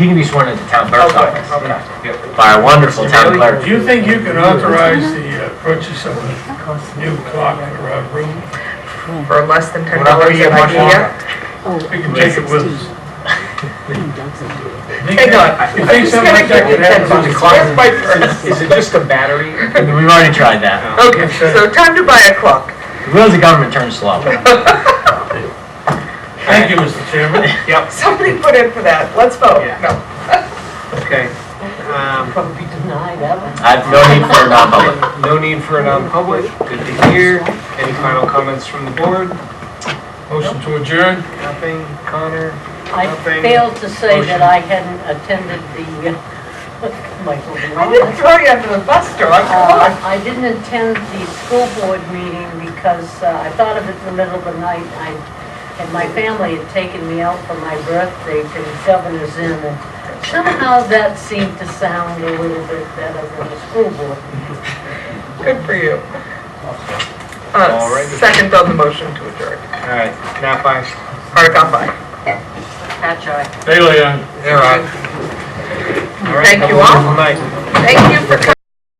He can be sworn into town clerk's Okay, office. okay. Yep, By our wonderful town Do clerk. you think you can authorize the uh, purchase of a new clock for our room? for less than ten Whatever dollars you an much idea. longer. We can take it with us. Hang on, You I'm think just something gonna like that give you could ten happen? bucks, where's my purse? Is it just a battery? We've already tried that. Okay, so time to buy a clock. The wheels of government turn slow. Thank you, Mr. Chairman. Yep, Somebody put in for that, let's vote. Yeah. No. okay. Um, Probably denied that one. I've no need for a non-public. No need for a non-public, good to hear. Any final comments from the board? Motion to adjourn? Nothing, Connor? I Nothing. failed to say Motion. that I hadn't attended the, uh, Michael. I didn't throw you under the bus, Dawn, come on. Uh, I didn't attend the school board meeting because uh, I thought of it in the middle of the night. I, and my family had taken me out for my birthday to the Governor's Inn. and Somehow that seemed to sound a little bit better than the school board. Good for you. All right. Uh, second on the motion to adjourn. All right, Nap eyes. Article five. Patch eye. Bailey, aye. They're on. All right, Thank have a you all. wonderful night. Thank you for coming.